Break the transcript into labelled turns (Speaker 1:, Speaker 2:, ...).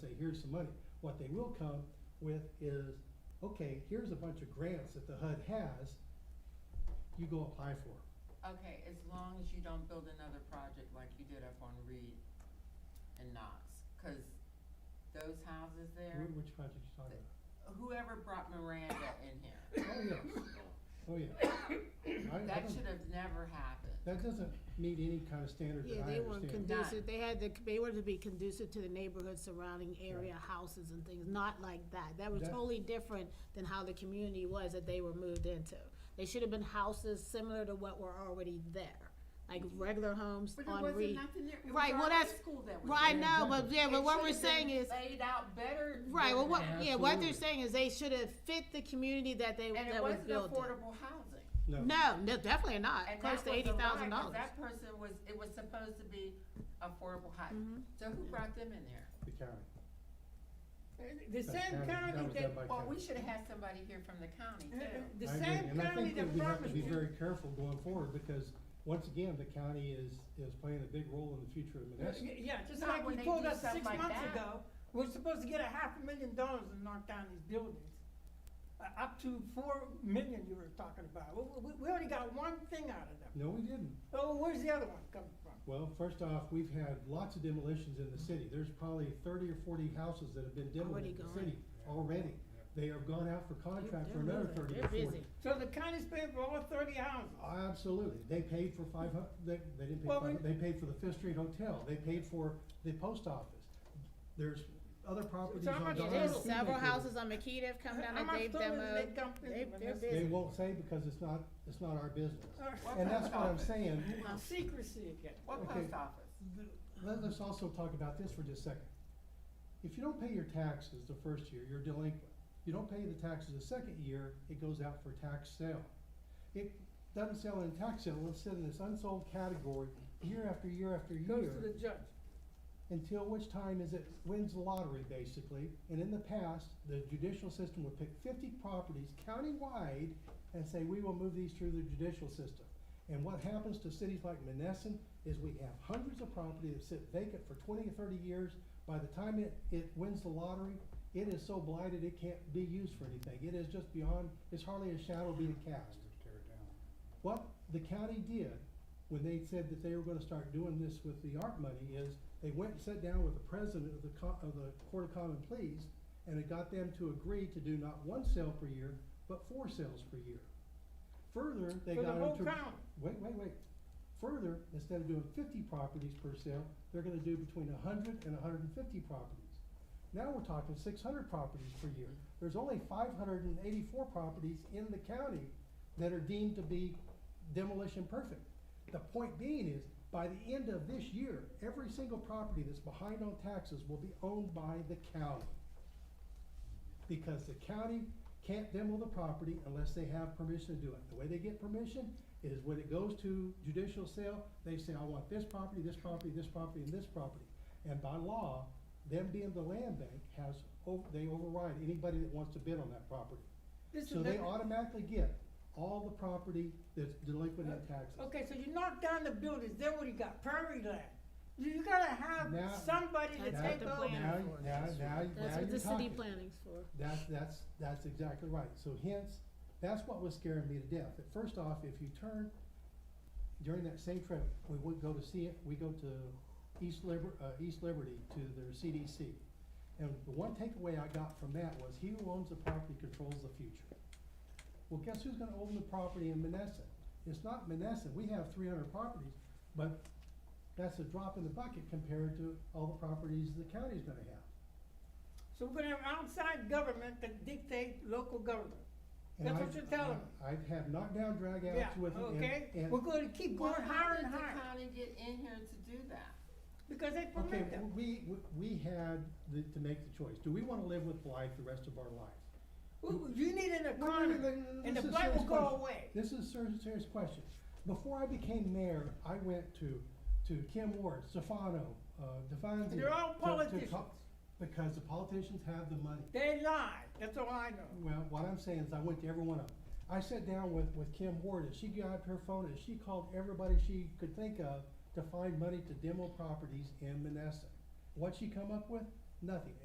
Speaker 1: here's some money. What they will come with is, okay, here's a bunch of grants that the HUD has, you go apply for 'em."
Speaker 2: Okay, as long as you don't build another project like you did up on Reed and Knox, cause those houses there,
Speaker 1: Wh- Which project you talking
Speaker 2: whoever brought Miranda in here,
Speaker 1: about? Oh, yes, oh, yeah. I- I
Speaker 2: that
Speaker 1: don't-
Speaker 2: should have never happened.
Speaker 1: That doesn't meet any kind of standard that I
Speaker 3: Yeah,
Speaker 1: understand.
Speaker 3: they weren't
Speaker 2: Not-
Speaker 3: conducive, they had, to- they were to be conducive to the neighborhood surrounding area, houses and things, not like that. That was
Speaker 1: That-
Speaker 3: totally different than how the community was that they were moved into. They should have been houses similar to what were already there, like regular homes
Speaker 2: But there
Speaker 3: on
Speaker 2: wasn't
Speaker 3: Reed.
Speaker 2: nothing there, it was
Speaker 3: Right, well,
Speaker 2: already
Speaker 3: that's-
Speaker 2: school that was
Speaker 3: Right,
Speaker 2: there.
Speaker 3: no, but yeah, but
Speaker 2: It
Speaker 3: what we're
Speaker 2: should've been
Speaker 3: saying is,
Speaker 2: Laid out better.
Speaker 3: right, well,
Speaker 2: than
Speaker 3: what,
Speaker 2: that.
Speaker 3: yeah, what
Speaker 1: Absolutely.
Speaker 3: they're saying is they should have fit the community that they,
Speaker 2: And it
Speaker 3: that was
Speaker 2: wasn't
Speaker 3: built in.
Speaker 2: affordable housing.
Speaker 1: No.
Speaker 3: No, no, definitely not,
Speaker 2: And
Speaker 3: close
Speaker 2: that was
Speaker 3: to
Speaker 2: a
Speaker 3: eighty
Speaker 2: lie, 'cause
Speaker 3: thousand dollars.
Speaker 2: That person was, it was supposed to be affordable housing. So who brought them in there?
Speaker 1: The county.
Speaker 4: The
Speaker 1: That
Speaker 4: same
Speaker 1: county- that
Speaker 4: county
Speaker 1: was
Speaker 4: that,
Speaker 1: done by
Speaker 2: Well,
Speaker 1: county.
Speaker 2: we should have had somebody here from the county
Speaker 4: uh, uh,
Speaker 2: too.
Speaker 4: the
Speaker 1: I agree,
Speaker 4: same
Speaker 1: and I
Speaker 4: county
Speaker 1: think that
Speaker 4: that
Speaker 1: we have to
Speaker 4: promised
Speaker 1: be
Speaker 4: you,
Speaker 1: very careful going forward, because, once again, the county is, is playing a big role in the future of Menneson.
Speaker 4: Y- yeah, just
Speaker 2: Not
Speaker 4: like
Speaker 2: when
Speaker 4: you
Speaker 2: they
Speaker 4: told
Speaker 2: do
Speaker 4: us
Speaker 2: stuff
Speaker 4: six
Speaker 2: like
Speaker 4: months
Speaker 2: that.
Speaker 4: ago, we're supposed to get a half a million dollars in North County's buildings. Uh, up to four million you were talking about, we, we, we already got one thing out of them,
Speaker 1: No, we didn't.
Speaker 4: oh, where's the other one coming from?
Speaker 1: Well, first off, we've had lots of demolitions in the city. There's probably thirty or forty houses that have been demolished
Speaker 3: Already
Speaker 1: in the
Speaker 3: gone.
Speaker 1: city already. They have gone out for contract for another thirty or
Speaker 3: They're busy.
Speaker 1: forty.
Speaker 4: So the county's paying for all thirty houses,
Speaker 1: Absolutely. They paid for five hu- they, they didn't pay
Speaker 4: Well,
Speaker 1: five,
Speaker 4: we-
Speaker 1: hu- they paid for the Fifth Street Hotel. They paid for the post office. There's other properties
Speaker 4: how
Speaker 1: on
Speaker 4: much
Speaker 1: Dollar
Speaker 4: is
Speaker 3: There's
Speaker 4: it?
Speaker 1: Tree
Speaker 3: several
Speaker 1: that they-
Speaker 3: houses on McKee that have come down
Speaker 4: How
Speaker 3: that
Speaker 4: much
Speaker 3: they've
Speaker 4: further did
Speaker 3: demoed.
Speaker 4: they come in
Speaker 3: They-
Speaker 4: when
Speaker 3: they're
Speaker 4: this-
Speaker 1: They
Speaker 3: busy.
Speaker 1: won't say because it's not, it's not our business.
Speaker 4: Uh,
Speaker 2: What
Speaker 1: And that's
Speaker 2: post
Speaker 1: what I'm
Speaker 2: office?
Speaker 1: saying.
Speaker 4: well, secrecy again.
Speaker 2: What
Speaker 1: Okay.
Speaker 2: post office?
Speaker 1: Let, us also talk about this for just a second. If you don't pay your taxes the first year, you're delinquent. You don't pay the taxes the second year, it goes out for tax sale. It doesn't sell in tax sale, it's in this unsold category year after year after
Speaker 4: Goes to the
Speaker 1: year.
Speaker 4: judge.
Speaker 1: Until which time is it wins the lottery basically, and in the past, the judicial system would pick fifty properties countywide and say, we will move these through the judicial system. And what happens to cities like Menneson is we have hundreds of property that sit vacant for twenty or thirty years. By the time it, it wins the lottery, it is so blighted, it can't be used for anything. It is just beyond, it's hardly a shadow being cast. What the county did when they said that they were gonna start doing this with the art money is they went and sat down with the president of the co- of the Court of Common Pleas and it got them to agree to do not one sale per year, but four sales per year. Further, they
Speaker 4: For
Speaker 1: got
Speaker 4: the
Speaker 1: them to.
Speaker 4: whole county.
Speaker 1: Wait, wait, wait. Further, instead of doing fifty properties per sale, they're gonna do between hundred and hundred and fifty properties. Now we're talking six hundred properties per year. There's only five hundred and eighty-four properties in the county that are deemed to be demolition perfect. The point being is, by the end of this year, every single property that's behind on taxes will be owned by the county. Because the county can't demo the property unless they have permission to do it. The way they get permission is when it goes to judicial sale, they say, I want this property, this property, this property, and this property. And by law, them being the land bank has, o- they override anybody that wants to bid on that property.
Speaker 4: This
Speaker 1: So
Speaker 4: is
Speaker 1: they
Speaker 4: the-
Speaker 1: automatically get all the property that's delinquent in taxes.
Speaker 4: Okay, so you knock down the buildings, then what do you got, prairie land? You, you gotta have
Speaker 1: Now-
Speaker 4: somebody to
Speaker 3: That's
Speaker 1: what
Speaker 4: take
Speaker 3: the
Speaker 4: over.
Speaker 3: plan-
Speaker 1: Now, now, now,
Speaker 3: That's
Speaker 1: now
Speaker 3: what
Speaker 1: you're
Speaker 3: the city
Speaker 1: talking.
Speaker 3: planning's for.
Speaker 1: That's, that's, that's exactly right. So hence, that's what was scaring me to death. That first off, if you turn, during that same trip, we would go to see it, we go to East Liber, uh, East Liberty to their CDC. And the one takeaway I got from that was he who owns the property controls the future. Well, guess who's gonna own the property in Menneson? It's not Menneson. We have three hundred properties, but that's a drop in the bucket compared to all the properties the county's gonna have.
Speaker 4: So we're gonna have outside government that dictate local government.
Speaker 1: And
Speaker 4: That's
Speaker 1: I've-
Speaker 4: what you're telling
Speaker 1: I- I've had knockdown
Speaker 4: Yeah,
Speaker 1: dragouts with it. and-
Speaker 4: okay?
Speaker 1: and-
Speaker 4: We're gonna keep
Speaker 2: Well,
Speaker 4: going
Speaker 2: how
Speaker 4: higher
Speaker 2: did
Speaker 4: and
Speaker 2: the
Speaker 4: higher,
Speaker 2: county get in here to do that?
Speaker 4: because they
Speaker 1: Okay,
Speaker 4: permit them.
Speaker 1: we, we- we had the, to make the choice. Do we wanna live with blight the rest of our life?
Speaker 4: We- You need an
Speaker 1: No, no, no, no,
Speaker 4: economy,
Speaker 1: no, no,
Speaker 4: and the
Speaker 1: this is
Speaker 4: blight will
Speaker 1: serious
Speaker 4: go
Speaker 1: question.
Speaker 4: away.
Speaker 1: This is a serious, serious question. Before I became mayor, I went to, to Kim Ward, Stefano, uh, Devanzi.
Speaker 4: They're all
Speaker 1: to- to
Speaker 4: politicians.
Speaker 1: talk- Because the politicians have the money.
Speaker 4: They lie, that's all I know.
Speaker 1: Well, what I'm saying is I went to every one of them. I sat down with, with Kim Ward and she grabbed her phone and she called everybody she could think of to find money to demo properties in Menneson. What'd she come up with? Nothing.